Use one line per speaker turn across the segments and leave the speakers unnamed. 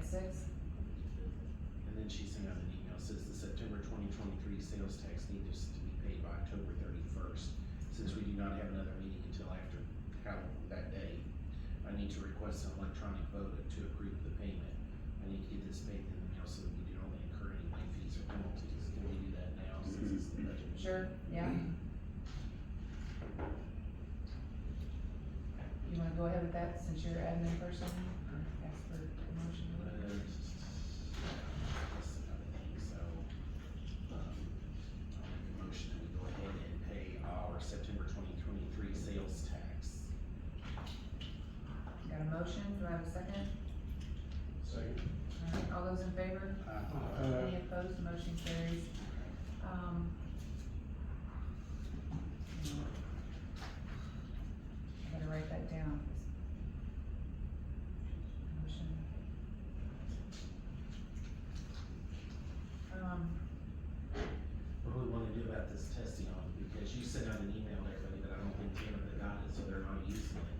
six?
And then she sent out an email, says the September twenty twenty-three sales tax needs to be paid by October thirty-first. Since we do not have another meeting until after Halloween that day, I need to request an electronic vote to approve the payment. I need to get this paid in the mail so that we do not incur any late fees or penalties. Can we do that now since it's the budget?
Sure, yeah. You wanna go ahead with that since you're admin person? Ask for a motion.
Uh, that's another thing, so, um, I'll make a motion that we go ahead and pay our September twenty twenty-three sales tax.
Got a motion, do I have a second?
Second.
All right, all those in favor? Any opposed, motion carries. Um. I gotta write that down. Motion. Um,
What do we wanna do about this testing on, because you sent out an email to everybody, but I don't think Canada got it, so they're not using it.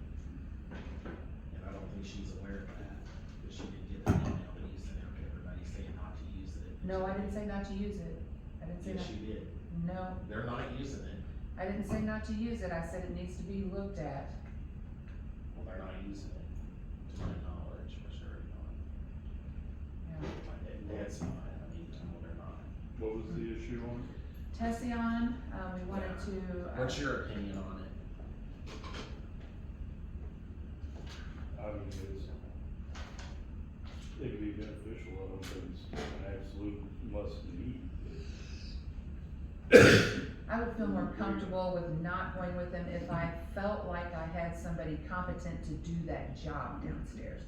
And I don't think she's aware of that, but she did get that email that you sent out to everybody saying not to use it.
no, I didn't say not to use it. I didn't say
Yes,
not,
you did,
no,
they're not using it,
I didn't say not to use it. I said it needs to be looked at.
well, they're not using it, to my knowledge, for sure not.
Yeah.
My dad's fine, I mean, I know they're not.
What was the issue on?
Tessie on, um, we wanted to. uh,
What's your opinion on it?
I mean, it's, it'd be beneficial, I don't think it's an absolute must need.
I would feel more
Mm-hmm.
comfortable with not going with them if I felt like I had somebody competent to do that job downstairs.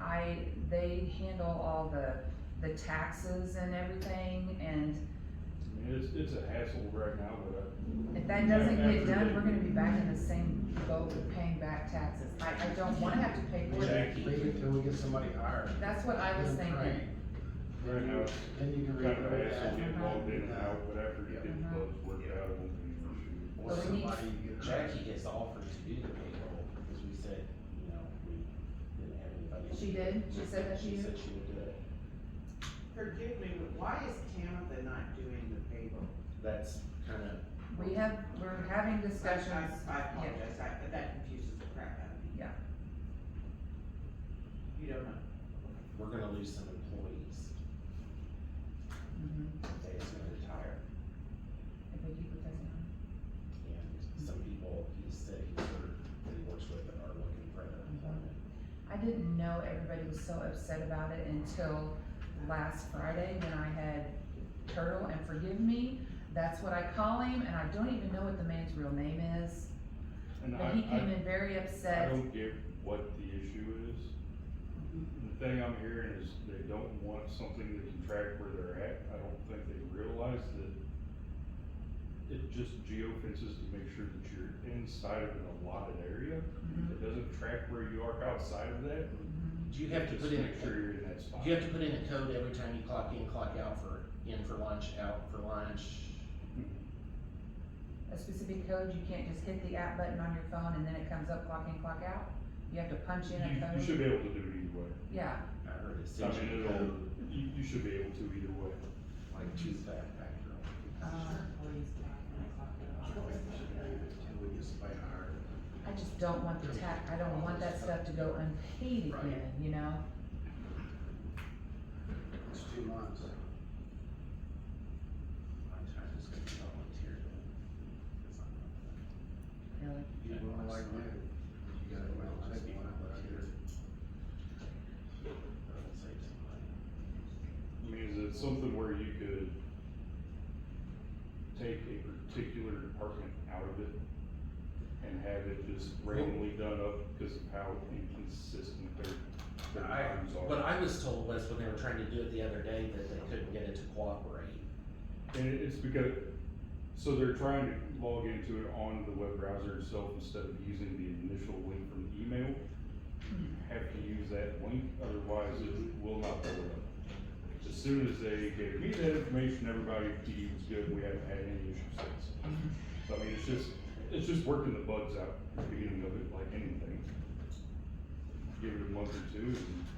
I, they handle all the, the taxes and everything, and
I mean, it's, it's a hassle right now, but
if that doesn't get done, we're gonna be back in the same boat with paying back taxes. I, I don't wanna have to pay for it.
Jackie.
Leave it till we get somebody hired.
That's what I was
Then train.
thinking.
I, right now, it's
Then you can
kind of a
redo
hassle
that.
getting logged in and out, but after you get the
Uh-huh.
bugs worked out, it won't be an issue.
Or
But
Or
we need-
somebody you get hired.
Jackie has offered to do the payroll, because we said, you know, we didn't have anybody.
She did? She said that she
She
did?
said she would do it.
Forgive me, but why is Canada not doing the payroll?
That's kind of,
We have, we're having
I- I-
discussions.
I apologize, I, but that confuses the crap out of me.
Yeah.
You don't know?
we're gonna lose some employees,
Mhm.
they just gonna retire,
If we keep with Tessie on.
and some people, he said, he worked- that he works with that are looking for other employment.
I didn't know everybody was so upset about it until last Friday when I had Turtle, and forgive me, that's what I call him, and I don't even know what the man's real name is.
And
But he came
I,
in very
I, I
upset.
don't get what the issue is. The thing I'm hearing is they don't want something that can track where they're at. I don't think they realize that it just geofences to make sure that you're inside of an allotted area.
Mhm,
It doesn't track where you are outside of that.
mhm.
Do Mm-hmm. you have to
Just
put in,
Make sure you're in that spot.
do you have to put in a code every time you clock in, clock out for, in for lunch, out for lunch?
A specific code, you can't just hit the app button on your phone and then it comes up clock in, clock out. You have to punch in a
You, you
code.
should be able to do it either way.
Yeah,
I heard it's
I
essentially
mean, it'll, you, you should be able to either way.
like two back factor.
uh,
Until we get somebody hired.
I just don't want the tax, I don't want that stuff to go unpaid
Right.
again, you know?
It's two months.
My time is gonna be volunteer.
Really.
You don't like me. You gotta go out and take one, but I get it.
I mean, is it something where you could take a particular department out of it and have it just randomly done up because of how inconsistent their, their
I-
times
What
are?
I was told was when they were trying to do it the other day, that they couldn't get it to cooperate.
And it- it's because, so they're trying to log into it on the web browser itself instead of using the initial link from the email. You have to use that link, otherwise it will not pull it up. As soon as they gave me that information, everybody, PD was good, we haven't had any issues since. So I mean, it's just, it's just working the bugs out at the beginning of it, like anything. Give it a month or two and